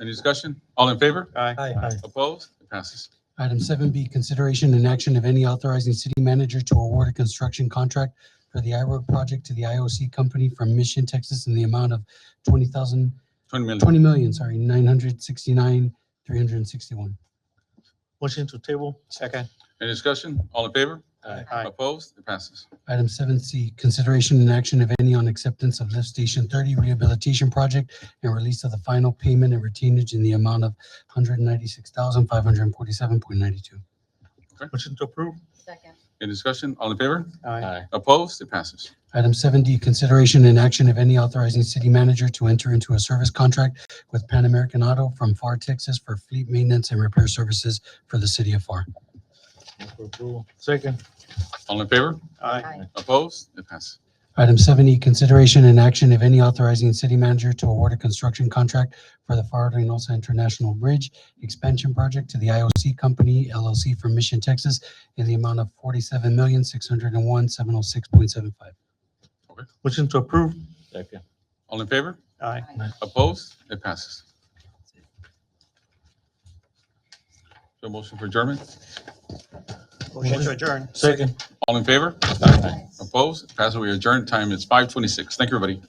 Any discussion? All in favor? Aye. Opposed? It passes. Item seven B, consideration and action of any authorizing city manager to award a construction contract for the I-Road project to the IOC company from Mission, Texas in the amount of twenty thousand, Twenty million. twenty million, sorry, nine hundred sixty-nine, three hundred and sixty-one. Motion to table. Second. Any discussion? All in favor? Aye. Opposed? It passes. Item seven C, consideration and action of any on acceptance of lift station thirty rehabilitation project and release of the final payment and retainage in the amount of hundred ninety-six thousand, five hundred and forty-seven point ninety-two. Motion to approve. second, Any discussion? All in favor? Aye. Opposed? It passes. Item seven D, consideration and action of any authorizing city manager to enter into a service contract with Pan American Auto from FAR Texas for fleet maintenance and repair services for the city of FAR. Move for approval. Second. All in favor? Aye. Opposed? It passes. Item seven E, consideration and action of any authorizing city manager to award a construction contract for the FAR Reynosa International Bridge Expansion Project to the IOC Company LLC from Mission, Texas in the amount of forty-seven million, six hundred and one, seven oh six point seven five. Motion to approve. Second. All in favor? Aye. Aye. Opposed? It passes. So motion for adjournment? Motion to adjourn. Second. All in favor? Opposed? It passes. We adjourn. Time is five twenty-six. Thank you, everybody.